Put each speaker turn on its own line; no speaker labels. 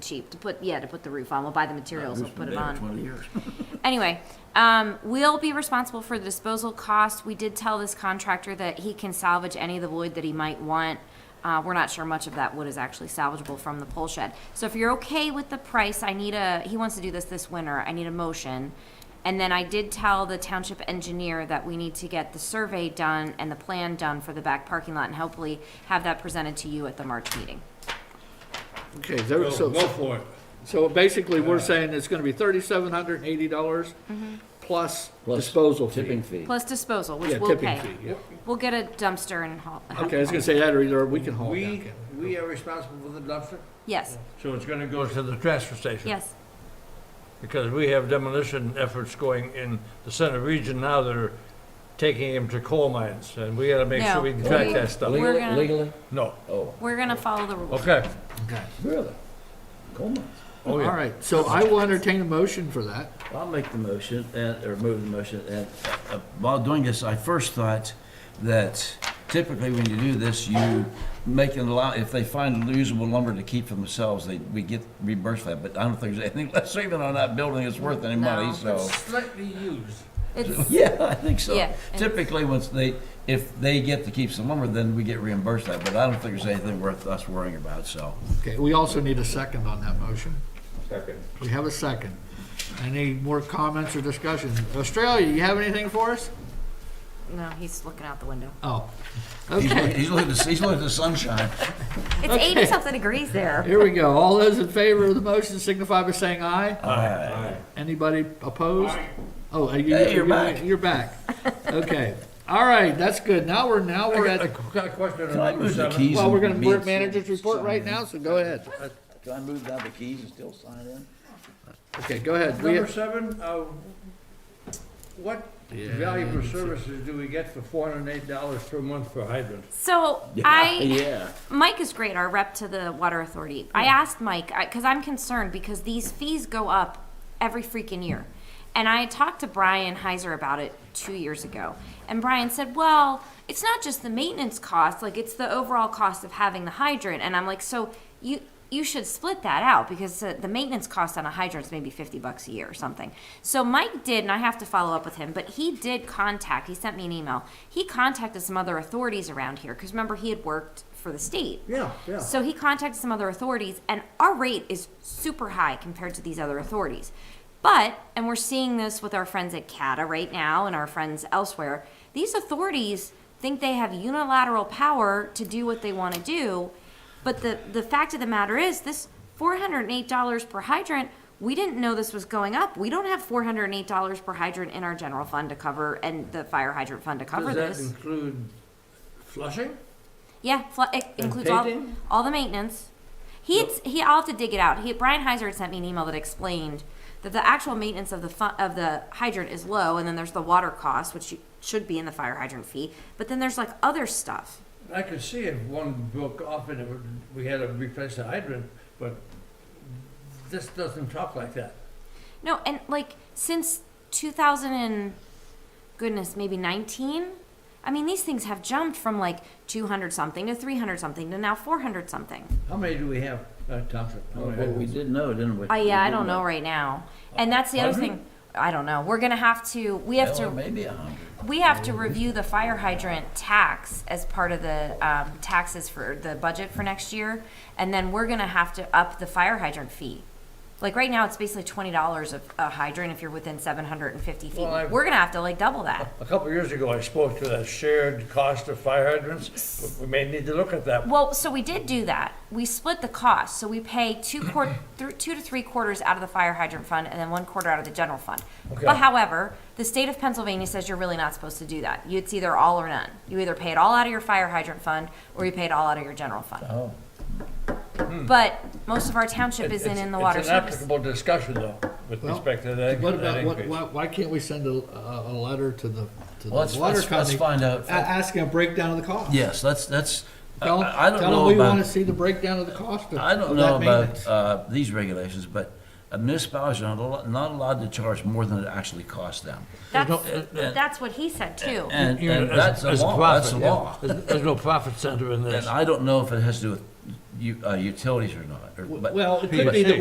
cheap to put, yeah, to put the roof on. We'll buy the materials, we'll
It's been
put it
there
on.
Twenty years.
Anyway, um, we'll be responsible for the disposal cost. We did tell this contractor that he can salvage any of the wood that he might want. Uh, we're not sure much of that wood is actually salvageable from the pole shed. So if you're okay with the price, I need a, he wants to do this this winter, I need a motion. And then I did tell the township engineer that we need to get the survey done and the plan done for the back parking lot and hopefully have that presented to you at the March meeting.
Okay, is there-
Go go
so,
for it.
so basically, we're saying it's gonna be thirty-seven hundred and eighty dollars
Mm-hmm.
plus disposal fee.
Tipping fee.
Plus disposal,
Yeah,
which we'll
tipping
pay.
fee, yeah.
We'll get a dumpster and haul.
Okay, I was gonna say that, or either we can haul it down.
We,
can't
we are responsible for the dumpster?
Yes,
So it's gonna go to the transfer station?
yes.
Because we have demolition efforts going in the center region now that are taking them to coal mines, and we gotta make
No,
sure we can track
we-
that stuff.
we- We're
Legally,
gonna-
legally?
No,
Oh,
We're gonna follow the rules.
okay.
really? Coal mines.
Oh,
we?
yeah.
All right, so I will entertain a motion for that.
I'll make the motion, and, or move the motion, and uh, while doing this, I first thought that typically when you do this, you make an allow, if they find usable lumber to keep for themselves, they, we get reimbursed for that, but I don't think there's anything less even on that building that's worth any money,
No.
so.
Slightly used.
It's,
Yeah, I think so.
Yeah.
Typically, once they, if they get to keep some lumber, then we get reimbursed that, but I don't think there's anything worth us worrying about, so.
Okay, we also need a second on that motion. Second. We have a second. Any more comments or discussion? Australia, you have anything for us?
no, he's looking out the window.
Oh,
He's
okay.
looking, he's looking to- he's looking at the sunshine.
It's eighty something degrees there.
Here we go. All those in favor of the motion signify by saying aye.
Aye.
Anybody opposed? Oh, uh, you,
Hey,
you're
you're back.
back. You're back. Okay. All right, that's good. Now we're, now we're
I got a
at,
qu- question on
Can I
number
move the
seven.
keys?
well,
and
we're gonna,
meet
we're at manager's report
some-
right now, so go ahead.
Can I move down the keys and still sign in?
Okay, go ahead. We-
Number seven, uh, what value for services do we get for four hundred and eight dollars per month for hydrant?
So I,
Yeah.
Mike is great, our rep to the water authority. I asked Mike, I, cause I'm concerned because these fees go up every freaking year. And I had talked to Brian Heiser about it two years ago. And Brian said, well, it's not just the maintenance cost, like it's the overall cost of having the hydrant. And I'm like, so you, you should split that out because uh, the maintenance cost on a hydrant is maybe 50 bucks a year or something. So Mike did, and I have to follow up with him, but he did contact, he sent me an email. He contacted some other authorities around here because remember, he had worked for the state.
Yeah, yeah.
So he contacted some other authorities, and our rate is super high compared to these other authorities. But, and we're seeing this with our friends at CATA right now and our friends elsewhere, these authorities think they have unilateral power to do what they want to do. But the, the fact of the matter is, this $408 per hydrant, we didn't know this was going up. We don't have $408 per hydrant in our general fund to cover and the fire hydrant fund to cover
Does
this.
that include flushing?
Yeah, fl- it includes all,
painting?
all the maintenance. He had, he. I'll have to dig it out. He Brian Heiser had sent me an email that explained that the actual maintenance of the fu- of the hydrant is low, and then there's the water cost, which you, should be in the fire hydrant fee. But then there's like other stuff.
I could see if one broke off and it would- we had to replace the hydrant, but this doesn't talk like that.
No, and like since 2000 and goodness, maybe 19. I mean, these things have jumped from like 200 something to 300 something to now 400 something.
How many do we have, uh, Thompson? How many
Well, we
hydrants?
did know, didn't we?
Oh yeah, I don't know right now. And that's the other thing. I don't know. We're gonna have to. We have to.
Well, maybe a hundred.
We have to review the fire hydrant tax as part of the um, taxes for the budget for next year, and then we're gonna have to up the fire hydrant fee. Like right now, it's basically twenty dollars a a hydrant if you're within seven hundred and fifty feet.
Well, I-
We're gonna have to like double that.
A couple of years ago, I spoke to the shared cost of fire hydrants. We may need to look at that.
Well, so we did do that. We split the cost, so we pay two quart, th- two to three quarters out of the fire hydrant fund and then one quarter out of the general fund.
Okay.
But however, the state of Pennsylvania says you're really not supposed to do that. You- It's either all or none. You either pay it all out of your fire hydrant fund or you pay it all out of your general fund.
Oh.
But most of our township
It's-
isn't in the
it's
water
an
service.
applicable discussion, though, with
Well,
respect to that
What
that
about, what,
increase.
why, why can't we send a, a, a letter to the, to the
Well, let's-
water
let's- let's
company?
find out.
a- Asking a breakdown of the cost.
Yes, that's, that's, I-
Tell,
I I don't
tell them
know
Uh, we wanna
about,
see the breakdown of the cost of
I don't
of
know
that
about,
maintenance.
uh, these regulations, but uh, municipalities are not al- not allowed to charge more than it actually costs them.
That's,
Uh, uh,
that's what he said too.
And,
You know,
and
as-
that's the
as a
law, that's the
profit, yeah.
law.
There's there's no profit center in this.
And I don't know if it has to do with
u- uh, utilities or not. or- but-
Well, it could be that